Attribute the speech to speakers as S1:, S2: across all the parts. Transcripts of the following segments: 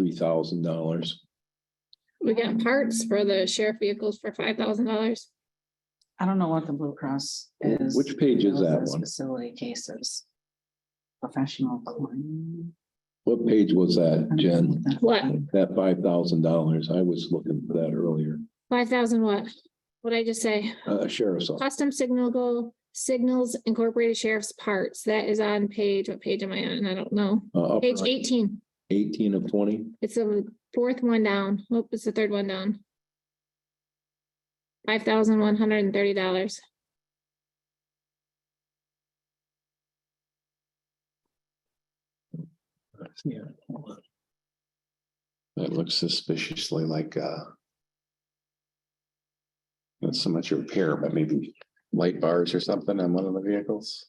S1: thirty thousand dollars.
S2: We got parts for the sheriff vehicles for five thousand dollars.
S3: I don't know what the Blue Cross is.
S1: Which page is
S3: Those
S1: that
S3: are
S1: one?
S3: Facility cases. Professional claim.
S1: What page was that, Jen?
S2: What?
S1: That five thousand dollars, I was looking for that earlier,
S2: Five thousand what? What'd I just say?
S1: uh, sheriff's office,
S2: Custom signal go signals incorporated sheriff's parts. That is on page, what page am I on? I don't know.
S1: uh, upper
S2: Page eighteen.
S1: eighteen of twenty.
S2: It's the fourth one down. Nope, it's the third one down. Five thousand one hundred and thirty dollars.
S1: Yeah.
S4: That looks suspiciously like, uh. Not so much repair, but maybe light bars or something on one of the vehicles.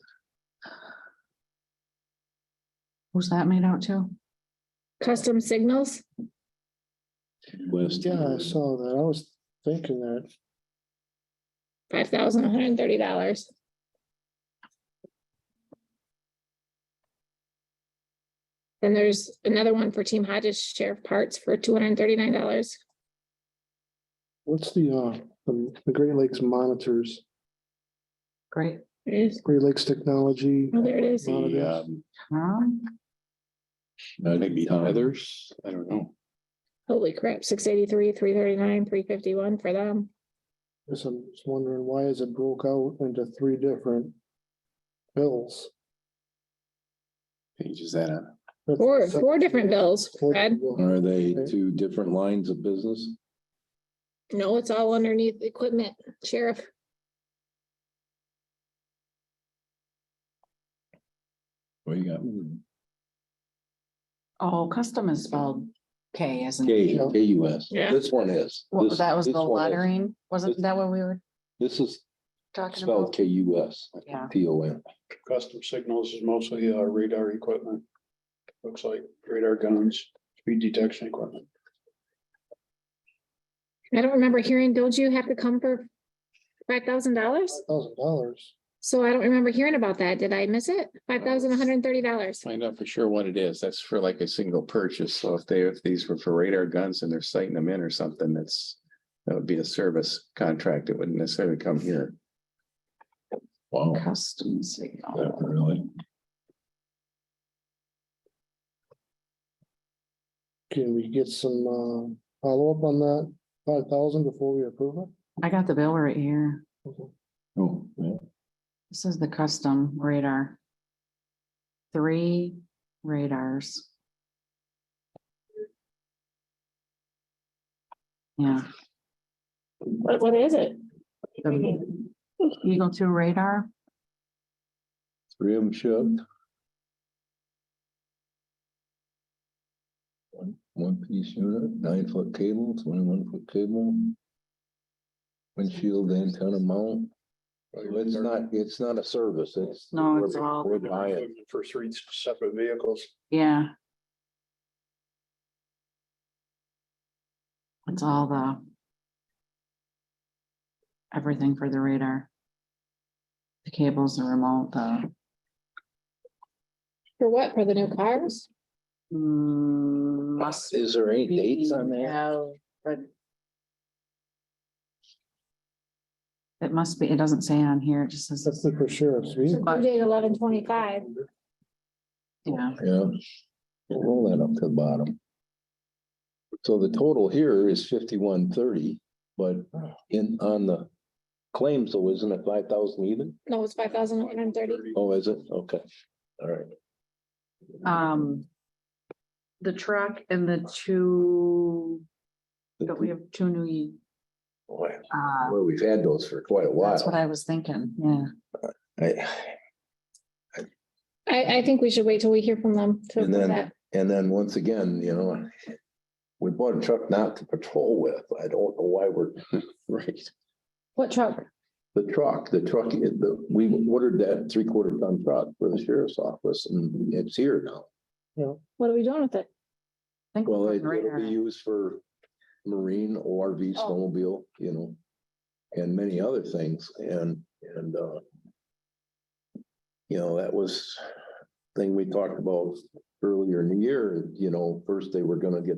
S3: Who's that made out to?
S2: Custom signals?
S1: West.
S5: Yeah, I saw that. I was thinking that.
S2: Five thousand one hundred and thirty dollars. Then there's another one for Team Hodges Sheriff Parts for two hundred and thirty-nine dollars.
S5: What's the, uh, um, the Great Lakes monitors,
S3: Great.
S2: Oh,
S5: Great Lakes Technology?
S2: there it is.
S4: The,
S5: monitors?
S4: um,
S3: Um,
S4: maybe others, I don't know.
S2: Holy crap, six eighty-three, three thirty-nine, three fifty-one for them.
S5: Guess I'm just wondering why is it broke out into three different bills?
S4: Page is that on?
S5: That's
S2: Four,
S5: the
S2: four different bills,
S5: second-
S2: Fred.
S1: Are they two different lines of business?
S2: No, it's all underneath equipment, sheriff.
S1: What you got?
S3: oh, custom is spelled K, isn't
S1: K,
S3: it?
S5: Yeah.
S1: K U S.
S2: Yeah.
S1: This one is.
S3: Well,
S1: This-
S3: that was
S1: this
S3: the
S1: one is.
S3: lettering, wasn't
S1: This-
S3: that what we were
S1: This is
S3: talking
S1: spelled
S3: about?
S1: K U S,
S3: Yeah.
S1: T O N.
S6: Custom signals is mostly uh, radar equipment. Looks like radar guns, speed detection equipment.
S2: I don't remember hearing, don't you have to come for five thousand dollars?
S5: Thousand dollars.
S2: So I don't remember hearing about that. Did I miss it? Five thousand one hundred and thirty dollars.
S4: Find out for sure what it is. That's for like a single purchase. So if they, if these were for radar guns and they're sighting them in or something, that's. That would be a service contract. It wouldn't necessarily come here.
S1: Wow.
S3: Custom oh. signal.
S1: Really?
S5: Can we get some, uh, follow-up on that five thousand before we approve it?
S3: I got the bill right here.
S1: Oh, yeah.
S3: This is the custom radar. Three radars. Yeah,
S2: What, what is it?
S3: the Eagle Two radar,
S1: Three of them shipped. One- One piece unit, nine foot cable, twenty-one foot cable. Windshield antenna mount. It's not, it's not a service, it's.
S3: No, it's
S1: we're-
S3: all-
S1: We're buying.
S6: Equipment For three separate vehicles.
S3: yeah. It's all the. Everything for the radar. The cables, the remote, the,
S2: For what? For the new cars?
S3: mm, must
S1: Is there any
S3: be
S1: dates on that?
S3: have, but- It must be, it doesn't say on here, it just
S5: That's
S3: says,
S5: the for sheriff's vehicle.
S3: But-
S2: Due date eleven twenty-five.
S3: yeah,
S1: Yeah. We'll Roll that up to the bottom. So the total here is fifty-one thirty, but in, on the claims, though, isn't it five thousand even?
S2: No, it's five thousand one hundred and thirty.
S1: Oh, is it? Okay, all right.
S3: um. The truck and the two, don't we have two new,
S1: Boy,
S3: uh,
S1: Well, we've had those for quite a
S3: that's what
S1: while.
S3: I was thinking, yeah.
S1: I-
S2: I, I think we should wait till we hear from them. to
S1: And then,
S2: approve that.
S1: and then once again, you know, we bought a truck not to patrol with. I don't know why we're,
S4: Right.
S2: What truck?
S1: the truck, the truck, the, we ordered that three-quarter ton truck for the sheriff's office and it's here now.
S2: What are we doing with it?
S3: I think
S1: Well,
S3: we're
S1: it-
S3: putting
S1: it'll
S3: radar
S1: be
S3: in.
S1: used for marine, ORV,
S2: Oh.
S1: snowmobile, you know, and many other things and, and, uh, you know, that was thing we talked about earlier in the year, you know, first they were gonna get